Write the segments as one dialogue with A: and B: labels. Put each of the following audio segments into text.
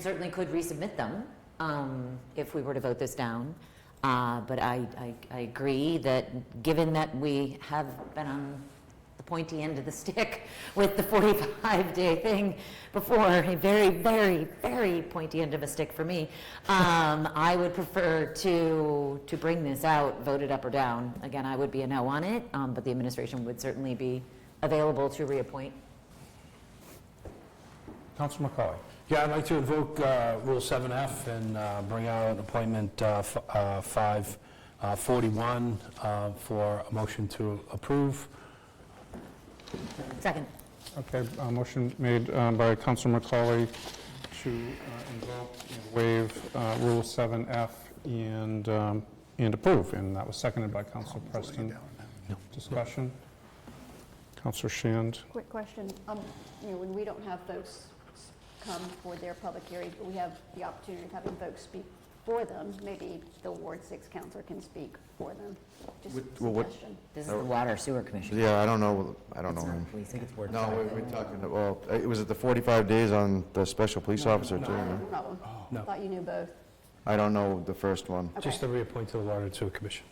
A: certainly could resubmit them um, if we were to vote this down. Uh, But I, I- I agree that, given that we have been on the pointy end of the stick with the 45-day thing before, a very, very, very pointy end of a stick for me, um, I would prefer to, to bring this out, vote it up or down. Again, I would be a no on it, um, but the administration would certainly be available to reappoint.
B: Council McCauley.
C: Yeah, I'd like to invoke uh, Rule 7F and uh, bring out appointment uh, f- uh, 541 uh, for a motion to approve.
A: Second.
B: Okay, uh, motion made uh, by Council McCauley to uh, invoke and waive uh, Rule 7F and, um, and approve, and that was seconded by Council Preston. Discussion? Council Shand.
D: Quick question, um, you know, when we don't have folks s- come for their public hearings, but we have the opportunity of having folks speak for them, maybe the Ward Six counselor can speak for them, just a
E: well, what-
D: suggestion.
A: This is the Water Sewer Commission.
E: Yeah, I don't know, I don't know him.
A: I think it's
E: Oh. No, we- we're talking, well, it was at the 45 days on the special police officer too.
D: No
E: no?
D: problem,
C: No.
D: thought you knew both.
E: I don't know the first one,
D: Okay.
C: Just to reappoint to the Water and Sewer Commission.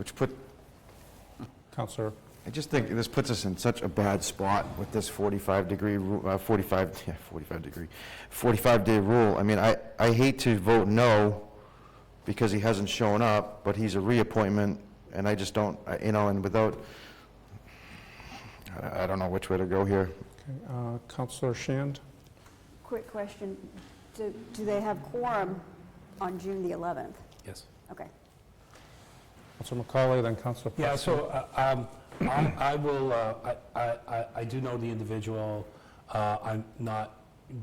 E: which put,
B: Councilor,
E: I just think this puts us in such a bad spot with this 45 degree, ru- uh, 45, yeah, 45 degree, 45 day rule. I mean, I, I hate to vote no because he hasn't shown up, but he's a reappointment and I just don't, I- you know, and without, I I don't know which way to go here.
B: okay, uh, Councilor Shand.
D: Quick question, do, do they have quorum on June the eleventh?
C: Yes.
D: Okay,
B: Council McCauley, then Council
C: Yeah,
B: Preston.
C: so uh, um, I I will, uh, I- I I- I do know the individual. Uh, I'm not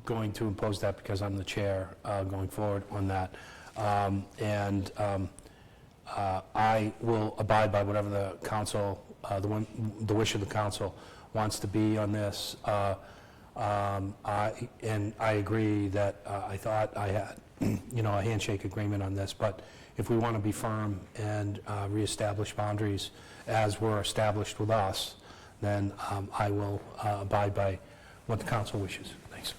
C: going to impose that because I'm the chair uh, going forward on that. Um, And um, uh, I will abide by whatever the council, uh, the one- the wish of the council wants to be on this. Uh, um, I- And I agree that uh, I thought I had, you know, a handshake agreement on this, but if we want to be firm and uh, reestablish boundaries as were established with us, then um, I will uh, abide by what the council wishes. Thanks.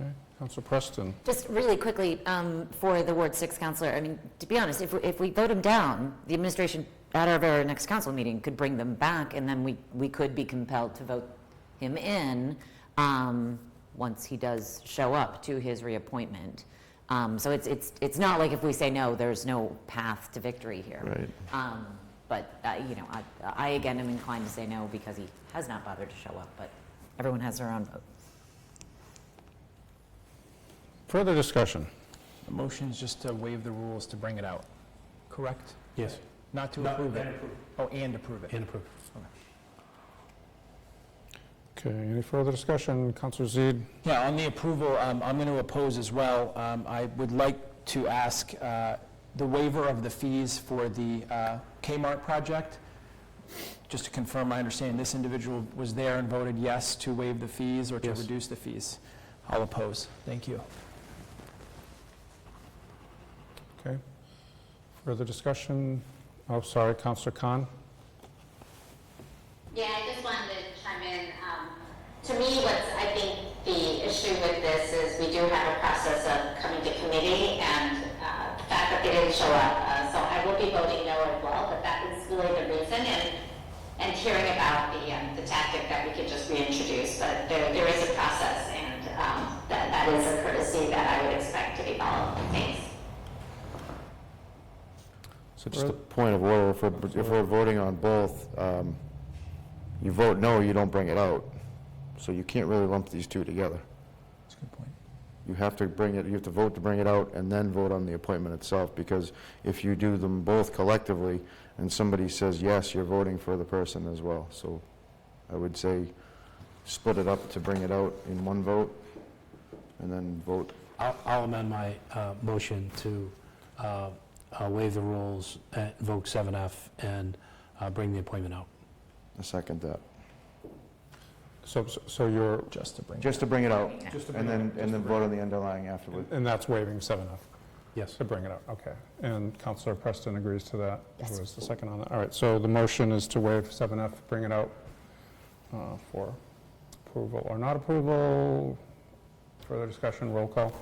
B: Okay, Council Preston.
A: Just really quickly, um, for the Ward Six counselor, I mean, to be honest, if, we- if we vote them down, the administration at our very next council meeting could bring them back, and then we, we could be compelled to vote him in, um, once he does show up to his reappointment. Um, so it's, it's, it's not like if we say no, there's no path to victory here.
E: Right.
A: Um, but, uh, you know, I, I again am inclined to say no because he has not bothered to show up, but everyone has their own vote.
B: Further discussion?
F: The motion's just to waive the rules to bring it out, correct?
C: Yes.
F: Not to approve it? Oh, and approve it.
C: And approved.
B: Okay, any further discussion? Councilor Zede.
F: Yeah, on the approval, um, I'm going to oppose as well. Um, I would like to ask uh, the waiver of the fees for the uh, Kmart project. Just to confirm, my understanding, this individual was there and voted yes to waive the fees or to
C: Yes.
F: reduce the fees. I'll oppose. Thank you.
B: Okay. Further discussion? Oh, sorry, Councilor Khan.
G: Yeah, I just wanted to chime in. Um, To me, what's, I think, the issue with this is we do have a process of coming to committee and uh, the fact that they didn't show up. Uh, So I will be voting no as well, but that is really the reason and, and hearing about the, um, the tactic that we could just reintroduce. But there, there is a process and um, that, that is a courtesy that I would expect to be followed. Thanks.
E: So just a point of order, if we're, if we're voting on both, um, you vote no, you don't bring it out. So you can't really lump these two together.
F: That's a good point.
E: You have to bring it, you have to vote to bring it out and then vote on the appointment itself, because if you do them both collectively and somebody says yes, you're voting for the person as well. So I would say split it up to bring it out in one vote and then vote.
C: I'll I'll amend my uh, motion to uh, uh, waive the rules, uh, invoke 7F, and uh, bring the appointment out.
E: I second that.
B: So, so you're,
F: Just to bring it.
E: Just to bring it out
B: to
E: and then, and then vote on the underlying afterward.
B: and that's waiving 7F?
C: Yes.
B: To bring it up, okay. And Counselor Preston agrees to that?
A: Yes.
B: Who was the second on that? All right, so the motion is to waive 7F, bring it out uh, for approval or not approval. Further discussion, roll call.